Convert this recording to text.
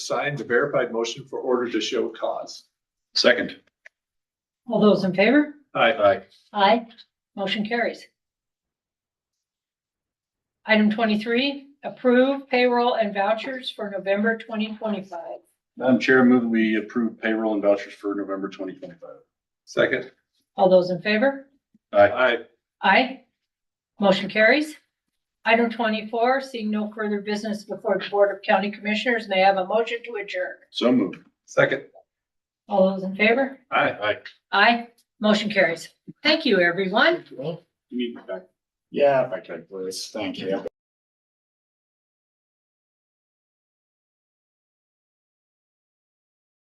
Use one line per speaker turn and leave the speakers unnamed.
sign the verified motion for order to show cause.
Second.
All those in favor?
Aye.
Aye.
Aye. Motion carries. Item twenty-three, approve payroll and vouchers for November twenty twenty-five.
Madam Chair, move that we approve payroll and vouchers for November twenty twenty-five.
Second.
All those in favor?
Aye.
Aye.
Aye. Motion carries. Item twenty-four, seeing no further business before the Board of County Commissioners, may I have a motion to adjourn.
So moved.
Second.
All those in favor?
Aye.
Aye.
Aye. Motion carries. Thank you, everyone.
You need to back
Yeah, if I could, please. Thank you.